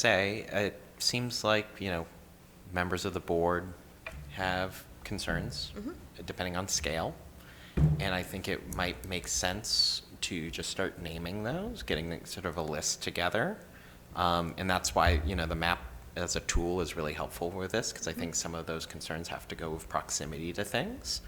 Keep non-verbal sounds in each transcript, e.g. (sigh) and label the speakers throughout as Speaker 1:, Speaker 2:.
Speaker 1: say, it seems like, you know, members of the board have concerns,
Speaker 2: Mm-hmm.
Speaker 1: depending on scale. And I think it might make sense to just start naming those, getting the- sort of a list together. Um, And that's why, you know, the map as a tool is really helpful with this, because I
Speaker 2: Mm-hmm.
Speaker 1: think some of those concerns have to go with proximity to things.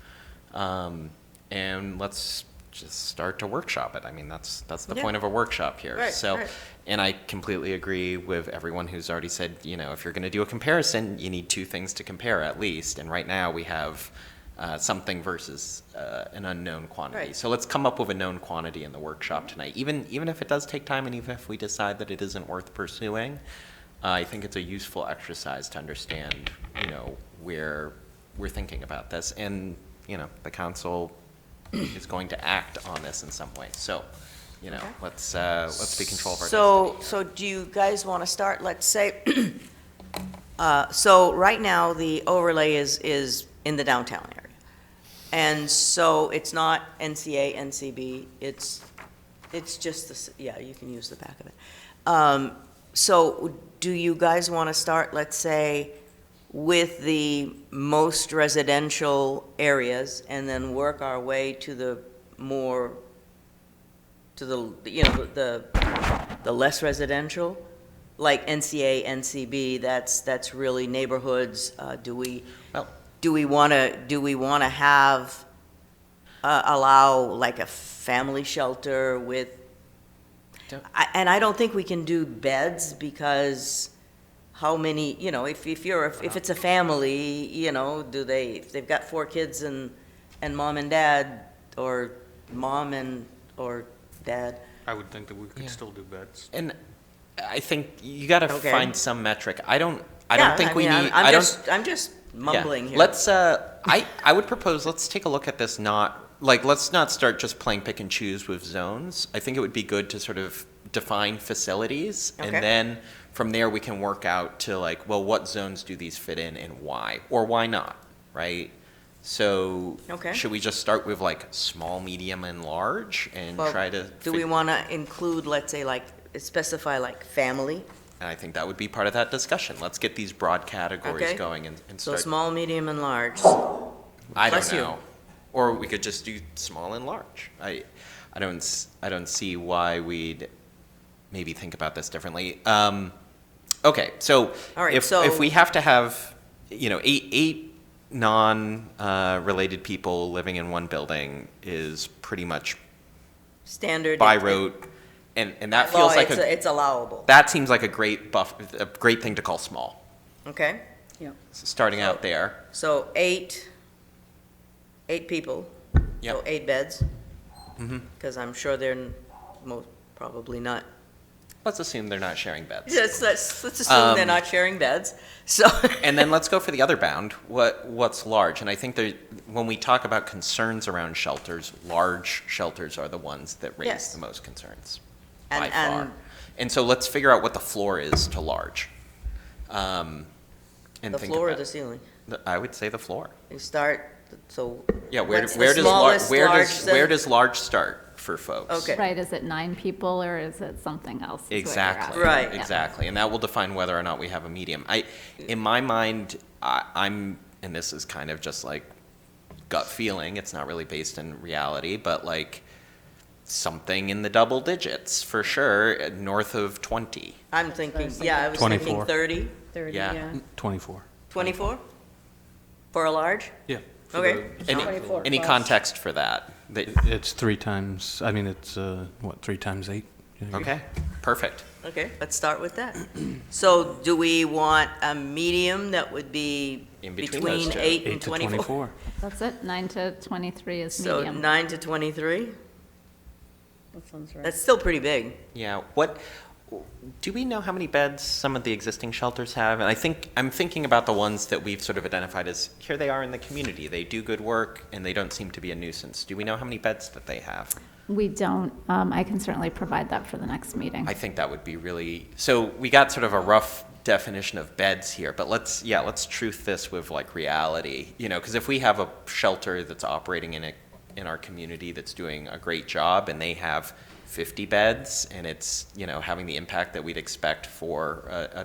Speaker 1: Um, And let's just start to workshop it. I mean, that's, that's the
Speaker 2: Yeah.
Speaker 1: point of a workshop here.
Speaker 2: Right,
Speaker 1: So,
Speaker 2: right.
Speaker 1: and I completely agree with everyone who's already said, you know, if you're going to do a comparison, you need two things to compare at least. And right now we have uh, something versus uh, an unknown quantity.
Speaker 2: Right.
Speaker 1: So let's come up with a known quantity in the workshop tonight. Even even if it does take time, and even if we decide that it isn't worth pursuing, uh, I think it's a useful exercise to understand, you know, where we're thinking about this, and you know, the council is going to act on this in some way. So. You know,
Speaker 2: Okay.
Speaker 1: let's uh, let's be control of our
Speaker 2: So, so do you guys want to start, let's say, (clears throat) uh, so right now, the overlay is, is in the downtown area. And so it's not NCA, NCB, it's, it's just the, ci- yeah, you can use the back of it. Um, So do you guys want to start, let's say, with the most residential areas and then work our way to the more, to the, you know, the, the less residential? Like NCA, NCB, that's, that's really neighborhoods, uh, do we,
Speaker 1: Well-
Speaker 2: do we want to, do we want to have, uh, allow like a family shelter with,
Speaker 1: Don't-
Speaker 2: I- and I don't think we can do beds because how many, you know, if, if you're, if it's a family, you know, do they, if they've got four kids and, and mom and dad, or mom and, or dad,
Speaker 3: I would think that we could
Speaker 1: Yeah.
Speaker 3: still do bets.
Speaker 1: And I think you got to
Speaker 2: Okay.
Speaker 1: find some metric. I don't. I
Speaker 2: Yeah,
Speaker 1: don't think we
Speaker 2: mean, I'm-
Speaker 1: need.
Speaker 2: I'm
Speaker 1: I don't-
Speaker 2: just, I'm just
Speaker 1: yeah.
Speaker 2: mumbling here.
Speaker 1: Let's. Uh, I I would propose let's take a look at this. Not like let's not start just playing pick and choose with zones. I think it would be good to sort of define facilities,
Speaker 2: Okay.
Speaker 1: and then from there we can work out to like, well, what zones do these fit in, and why, or why not, right? So
Speaker 2: Okay.
Speaker 1: should we just start with like small, medium, and large, and
Speaker 2: Well,
Speaker 1: try to?
Speaker 2: Do we
Speaker 1: fig-
Speaker 2: want to include, let's say, like, specify like family,
Speaker 1: And I think that would be part of that discussion. Let's get these broad categories
Speaker 2: Okay.
Speaker 1: going and, and
Speaker 2: so
Speaker 1: start.
Speaker 2: small, medium, and large?
Speaker 1: I don't
Speaker 2: bless you.
Speaker 1: know. Or we could just do small and large. I, I don't, s- I don't see why we'd maybe think about this differently. Um, okay, so
Speaker 2: All right,
Speaker 1: if,
Speaker 2: so-
Speaker 1: if we have to have, you know, eight, eight non-related people living in one building is pretty much
Speaker 2: Standard.
Speaker 1: by
Speaker 2: it- it-
Speaker 1: rote, and, and that
Speaker 2: by law,
Speaker 1: feels like
Speaker 2: it's
Speaker 1: a,
Speaker 2: It's allowable,
Speaker 1: that seems like a great buff, a great thing to call small.
Speaker 2: okay?
Speaker 1: s- starting out there.
Speaker 2: So eight, eight people.
Speaker 1: Yep. Mm-hmm.
Speaker 2: So eight beds. Because I'm sure they're most, probably not, (laughs)
Speaker 1: Let's assume they're not sharing beds.
Speaker 2: let's, let's let's assume they're
Speaker 1: Um,
Speaker 2: not sharing beds, (laughs) so.
Speaker 1: And then let's go for the other bound. What what's large? And I think there, when we talk about concerns around shelters, large shelters are the ones that raise
Speaker 2: Yes.
Speaker 1: the most concerns by
Speaker 2: And-
Speaker 1: far.
Speaker 2: and-
Speaker 1: And so let's figure out what the floor is to large. Um, and
Speaker 2: The
Speaker 1: think
Speaker 2: floor or
Speaker 1: about-
Speaker 2: the ceiling?
Speaker 1: the- I would say the floor.
Speaker 2: You start, so.
Speaker 1: Yeah, where
Speaker 2: what's the
Speaker 1: where does lar-
Speaker 2: smallest
Speaker 1: where
Speaker 2: large
Speaker 1: does
Speaker 2: that-
Speaker 1: where does large start for folks?
Speaker 2: Okay.
Speaker 4: Right, is it nine people or is it something else? is what you're
Speaker 1: Exactly.
Speaker 4: asking.
Speaker 2: Right.
Speaker 4: Yeah.
Speaker 1: Exactly. And that will define whether or not we have a medium. I, in my mind, I, I'm, and this is kind of just like gut feeling, it's not really based in reality, but like something in the double digits for sure, uh, north of 20.
Speaker 2: I'm thinking, yeah, I was thinking
Speaker 3: 24.
Speaker 2: 30,
Speaker 1: Yeah.
Speaker 3: Twenty-four.
Speaker 2: 24? For a large?
Speaker 3: Yeah. for
Speaker 2: Okay.
Speaker 3: the-
Speaker 1: Any, any context for that? That-
Speaker 3: It's three times, I mean, it's, uh, what, three times eight? Yeah.
Speaker 1: okay, perfect.
Speaker 2: Okay, let's start with that. (clears throat) So do we want a medium that would be
Speaker 1: In between those
Speaker 2: between
Speaker 1: two.
Speaker 2: eight
Speaker 3: Eight
Speaker 2: and
Speaker 3: to
Speaker 2: 24?
Speaker 3: twenty-four.
Speaker 4: That's it, nine to 23 is
Speaker 2: So
Speaker 4: medium.
Speaker 2: nine to 23?
Speaker 5: That sounds right.
Speaker 2: That's still pretty big.
Speaker 1: Yeah, what, do we know how many beds some of the existing shelters have? And I think, I'm thinking about the ones that we've sort of identified as, here they are in the community, they do good work, and they don't seem to be a nuisance. Do we know how many beds that they have?
Speaker 4: We don't, um, I can certainly provide that for the next meeting.
Speaker 1: I think that would be really, so we got sort of a rough definition of beds here, but let's, yeah, let's truth this with like reality, you know, because if we have a shelter that's operating in a, in our community that's doing a great job and they have fifty beds and it's, you know, having the impact that we'd expect for a, a